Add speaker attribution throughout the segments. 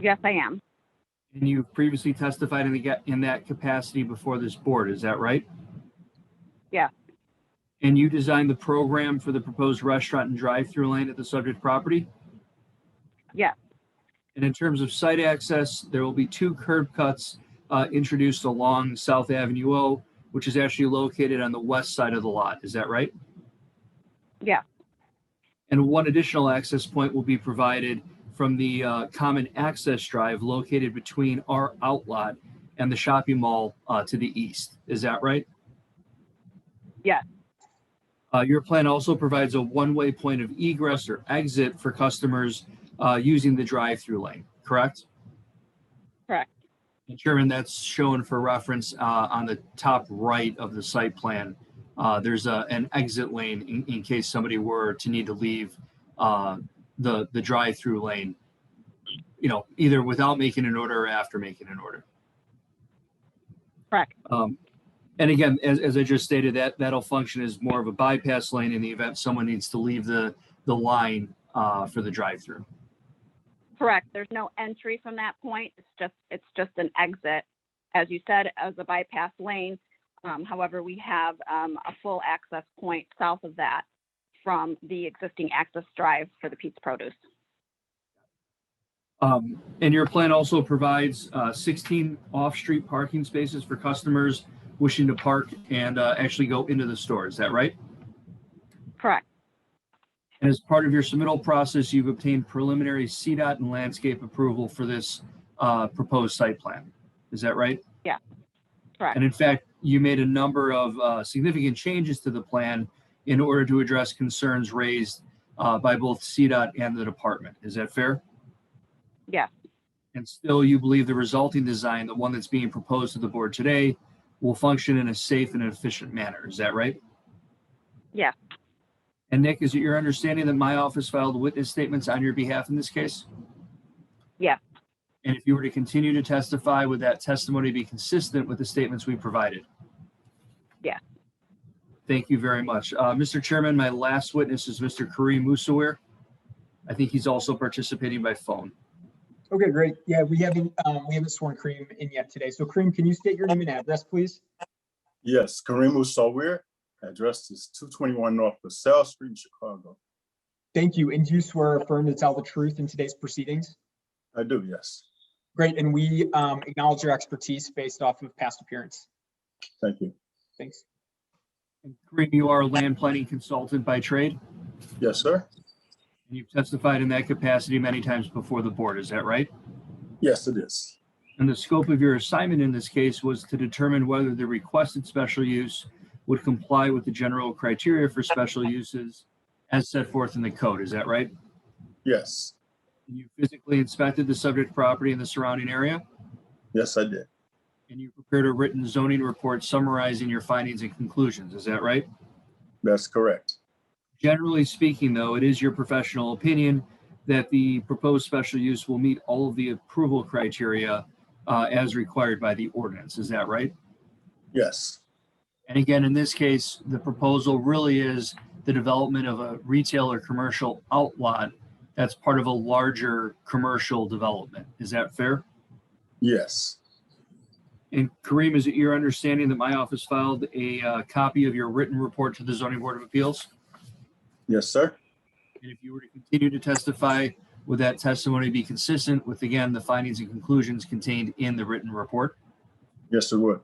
Speaker 1: Yes, I am.
Speaker 2: And you previously testified in the, ga- in that capacity before this board, is that right?
Speaker 1: Yeah.
Speaker 2: And you designed the program for the proposed restaurant and drive-through lane at the subject property?
Speaker 1: Yeah.
Speaker 2: And in terms of site access, there will be two curb cuts uh, introduced along South Avenue O, which is actually located on the west side of the lot, is that right?
Speaker 1: Yeah.
Speaker 2: And one additional access point will be provided from the uh, common access drive located between our outlot and the shopping mall uh, to the east. Is that right?
Speaker 1: Yes.
Speaker 2: Uh, Your plan also provides a one-way point of egress or exit for customers uh, using the drive-through lane, correct?
Speaker 1: Correct.
Speaker 2: And Chairman, that's shown for reference uh, on the top right of the site plan. Uh, There's a- an exit lane in- in case somebody were to need to leave uh, the, the drive-through lane, you know, either without making an order or after making an order.
Speaker 1: Correct.
Speaker 2: Um, And again, as, as I just stated, that, that'll function as more of a bypass lane in the event someone needs to leave the, the line uh, for the drive-through.
Speaker 1: Correct. There's no entry from that point. It's just, it's just an exit. As you said, as a bypass lane. Um, however, we have, um, a full access point south of that from the existing access drive for the Pete's Produce.
Speaker 2: Um, and your plan also provides, uh, sixteen off-street parking spaces for customers wishing to park and, uh, actually go into the store. Is that right?
Speaker 1: Correct.
Speaker 2: And as part of your submittal process, you've obtained preliminary CDOT and landscape approval for this, uh, proposed site plan. Is that right?
Speaker 1: Correct.
Speaker 2: And in fact, you made a number of uh, significant changes to the plan in order to address concerns raised uh, by both CDOT and the department. Is that fair?
Speaker 1: Yes.
Speaker 2: And still, you believe the resulting design, the one that's being proposed to the board today, will function in a safe and efficient manner. Is that right?
Speaker 1: Yes.
Speaker 2: And Nick, is it your understanding that my office filed witness statements on your behalf in this case?
Speaker 1: Yes.
Speaker 2: And if you were to continue to testify, would that testimony be consistent with the statements we provided?
Speaker 1: Yes.
Speaker 2: Thank you very much. Uh, Mr. Chairman, my last witness is Mr. Kareem Musawir. I think he's also participating by phone.
Speaker 3: Okay, great. Yeah, we haven't, um, we haven't sworn Kareem in yet today. So Kareem, can you state your name and address, please?
Speaker 4: Yes, Kareem Usawir, address is two twenty-one North LaSalle Street, in Chicago.
Speaker 3: Thank you. And do you swear or affirm to tell the truth in today's proceedings?
Speaker 4: I do, yes.
Speaker 3: Great, and we, um, acknowledge your expertise based off of past appearance.
Speaker 4: Thank you.
Speaker 3: Thanks.
Speaker 2: And Kareem, you are a land planning consultant by trade,
Speaker 4: Yes, sir?
Speaker 2: and you've testified in that capacity many times before the board. Is that right?
Speaker 4: Yes, it is.
Speaker 2: And the scope of your assignment in this case was to determine whether the requested special use would comply with the general criteria for special uses as set forth in the code. Is that right?
Speaker 4: Yes,
Speaker 2: You physically inspected the subject property and the surrounding area,
Speaker 4: yes, I did.
Speaker 2: and you prepared a written zoning report summarizing your findings and conclusions. Is that right?
Speaker 4: That's correct.
Speaker 2: Generally speaking, though, it is your professional opinion that the proposed special use will meet all of the approval criteria uh, as required by the ordinance. Is that right?
Speaker 4: Yes,
Speaker 2: And again, in this case, the proposal really is the development of a retail or commercial outlot that's part of a larger commercial development. Is that fair?
Speaker 4: yes,
Speaker 2: And Kareem, is it your understanding that my office filed a uh, copy of your written report to the zoning board of appeals?
Speaker 4: yes, sir.
Speaker 2: And if you were to continue to testify, would that testimony be consistent with, again, the findings and conclusions contained in the written report?
Speaker 4: Yes, it would.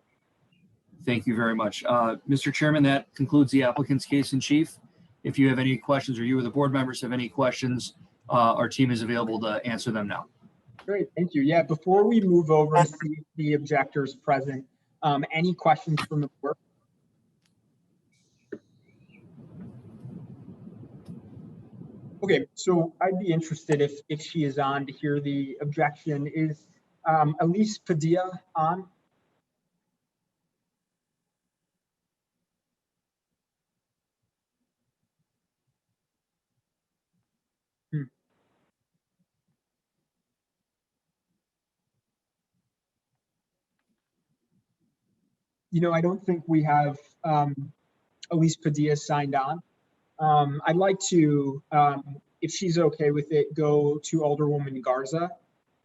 Speaker 2: Thank you very much. Uh, Mr. Chairman, that concludes the applicant's case in chief. If you have any questions or you or the board members have any questions, uh, our team is available to answer them now.
Speaker 3: Great, thank you. Yeah, before we move over and see if the objectors present, um, any questions from the board? Okay, so I'd be interested if, if she is on to hear the objection. Is, um, Elise Padilla on? You know, I don't think we have, um, Elise Padilla signed on. Um, I'd like to, um, if she's okay with it, go to Alderwoman Garza